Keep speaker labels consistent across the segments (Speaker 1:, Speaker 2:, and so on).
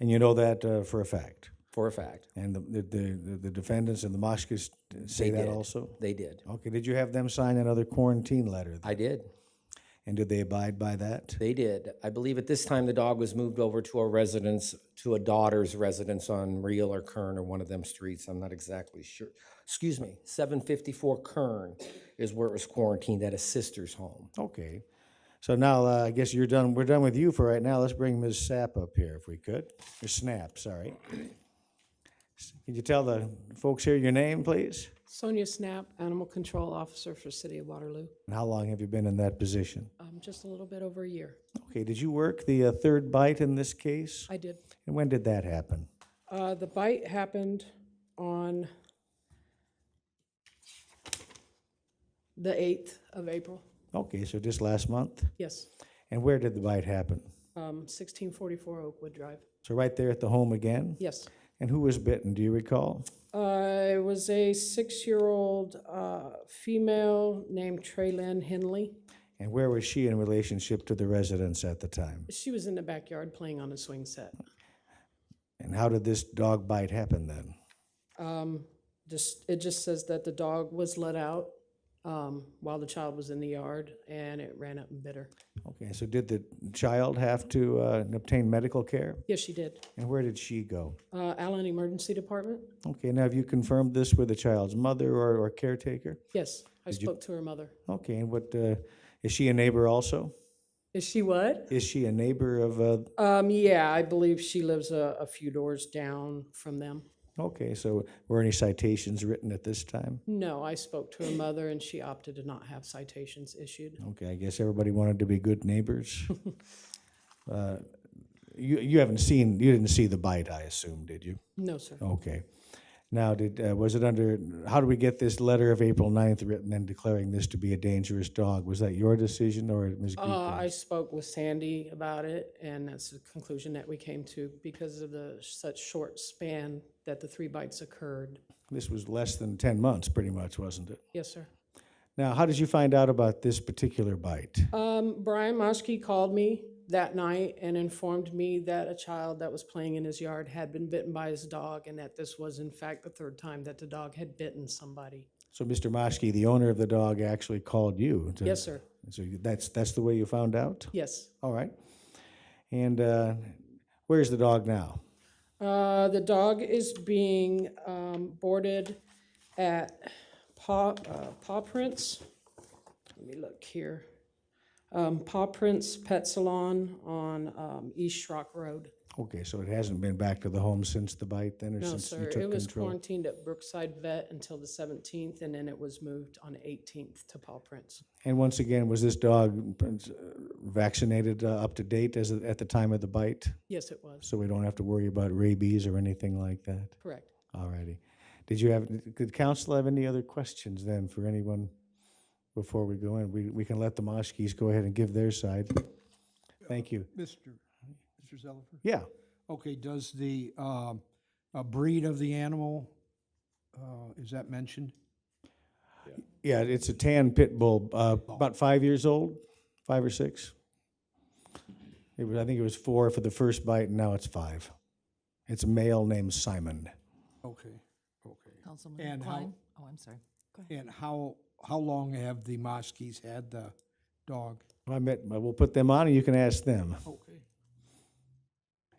Speaker 1: and you know that uh, for a fact.
Speaker 2: for a fact.
Speaker 1: And the, the, the, the defendants and the Moskis say that also?
Speaker 2: They did.
Speaker 1: Okay, did you have them sign another quarantine letter?
Speaker 2: I did.
Speaker 1: And did they abide by that?
Speaker 2: They did. I believe at this time the dog was moved over to a residence, to a daughter's residence on Real or Kern or one of them streets. I'm not exactly sure. Excuse me, 754 Kern is where it was quarantined at a sister's home.
Speaker 1: Okay. So now uh, I guess you're done, we're done with you for right now. Let's bring Ms. Sapp up here if we could. Ms. Snap, sorry. S- Could you tell the folks here your name, please?
Speaker 3: Sonia Snap, Animal Control Officer for City of Waterloo.
Speaker 1: And how long have you been in that position?
Speaker 3: Um, just a little bit over a year.
Speaker 1: Okay, did you work the uh, third bite in this case?
Speaker 3: I did.
Speaker 1: And when did that happen?
Speaker 3: Uh, the bite happened on the 8th of April.
Speaker 1: Okay, so just last month?
Speaker 3: Yes,
Speaker 1: And where did the bite happen?
Speaker 3: um, 1644 Oakwood Drive.
Speaker 1: So right there at the home again?
Speaker 3: Yes.
Speaker 1: And who was bitten, do you recall?
Speaker 3: Uh, it was a six-year-old uh, female named Trey Lynn Henley.
Speaker 1: And where was she in relationship to the residents at the time?
Speaker 3: She was in the backyard playing on a swing set.
Speaker 1: And how did this dog bite happen then?
Speaker 3: just, it just says that the dog was let out um, while the child was in the yard and it ran up and bit her.
Speaker 1: Okay, so did the child have to uh, obtain medical care?
Speaker 3: Yes, she did.
Speaker 1: And where did she go?
Speaker 3: Uh, Allen Emergency Department?
Speaker 1: Okay, now have you confirmed this with the child's mother or, or caretaker?
Speaker 3: Yes, I spoke to her mother.
Speaker 1: Okay, and what, uh, is she a neighbor also?
Speaker 3: Is she what?
Speaker 1: Is she a neighbor of, uh,
Speaker 3: Um, yeah, I believe she lives a, a few doors down from them.
Speaker 1: okay, so were any citations written at this time?
Speaker 3: No, I spoke to her mother and she opted to not have citations issued.
Speaker 1: Okay, I guess everybody wanted to be good neighbors. uh, you, you haven't seen, you didn't see the bite, I assume, did you?
Speaker 3: No, sir.
Speaker 1: Okay. Now, did, uh, was it under, how do we get this letter of April 9th written and declaring this to be a dangerous dog? Was that your decision or Ms. Greco?
Speaker 3: Uh, I spoke with Sandy about it, and that's the conclusion that we came to because of the such short span that the three bites occurred.
Speaker 1: This was less than 10 months, pretty much, wasn't it?
Speaker 3: Yes, sir.
Speaker 1: Now, how did you find out about this particular bite?
Speaker 3: Um, Brian Moschke called me that night and informed me that a child that was playing in his yard had been bitten by his dog, and that this was in fact the third time that the dog had bitten somebody.
Speaker 1: So Mr. Moskey, the owner of the dog, actually called you? to-
Speaker 3: Yes, sir.
Speaker 1: So you- that's, that's the way you found out?
Speaker 3: Yes.
Speaker 1: All right. And uh, where's the dog now?
Speaker 3: Uh, the dog is being um, boarded at Paw, uh, Paw Prints. Let me look here. Um, Paw Prints Pet Salon on um, East Shrock Road.
Speaker 1: Okay, so it hasn't been back to the home since the bite then, or
Speaker 3: No,
Speaker 1: since you
Speaker 3: sir,
Speaker 1: took
Speaker 3: it was
Speaker 1: control?
Speaker 3: quarantined at Brookside Vet until the 17th, and then it was moved on 18th to Paw Prints.
Speaker 1: And once again, was this dog uh, vaccinated uh, up to date as of- at the time of the bite?
Speaker 3: Yes, it was,
Speaker 1: So we don't have to worry about rabies or anything like that?
Speaker 3: correct.
Speaker 1: All righty. Did you have, did council have any other questions then for anyone before we go in? We, we can let the Moshkis go ahead and give their side. Thank you.
Speaker 4: Mr. Mr. Zellifer?
Speaker 1: Yeah,
Speaker 4: Okay, does the, um, uh, breed of the animal, uh, is that mentioned?
Speaker 1: yeah, it's a tan pit bull, uh, about five years old, five or six. It was, I think it was four for the first bite, and now it's five. It's a male named Simon.
Speaker 4: Okay, okay.
Speaker 5: Councilman
Speaker 4: And how-
Speaker 5: Klein? Oh, I'm sorry.
Speaker 4: And how, how long have the Moskies had the dog?
Speaker 1: I met, we'll put them on, and you can ask them.
Speaker 4: Okay.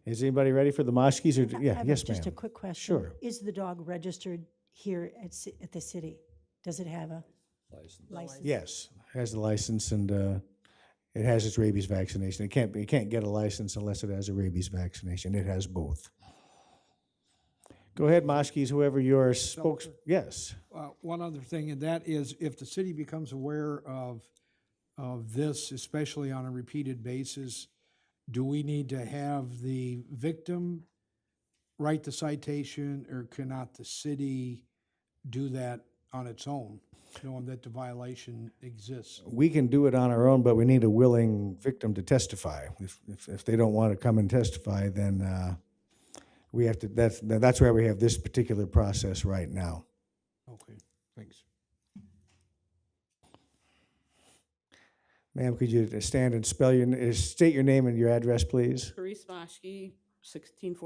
Speaker 1: Is anybody ready for the Moshkis or,
Speaker 6: I
Speaker 1: yeah,
Speaker 6: have a-
Speaker 1: yes,
Speaker 6: Just a
Speaker 1: ma'am.
Speaker 6: quick question.
Speaker 1: Sure.
Speaker 6: Is the dog registered here at, ci- at the city? Does it have a license?
Speaker 1: Yes, has the license and uh, it has its rabies vaccination. It can't be, it can't get a license unless it has a rabies vaccination. It has both. Go ahead, Moshkis, whoever your spokes, yes.
Speaker 4: Uh, one other thing, and that is if the city becomes aware of, of this, especially on a repeated basis, do we need to have the victim write the citation or cannot the city do that on its own, knowing that the violation exists?
Speaker 1: We can do it on our own, but we need a willing victim to testify. If, if, if they don't want to come and testify, then uh, we have to, that's, that's why we have this particular process right now.
Speaker 4: Okay, thanks.
Speaker 1: Ma'am, could you stand and spell your, n- state your name and your address, please?
Speaker 7: Therese Moshke, sixteen forty.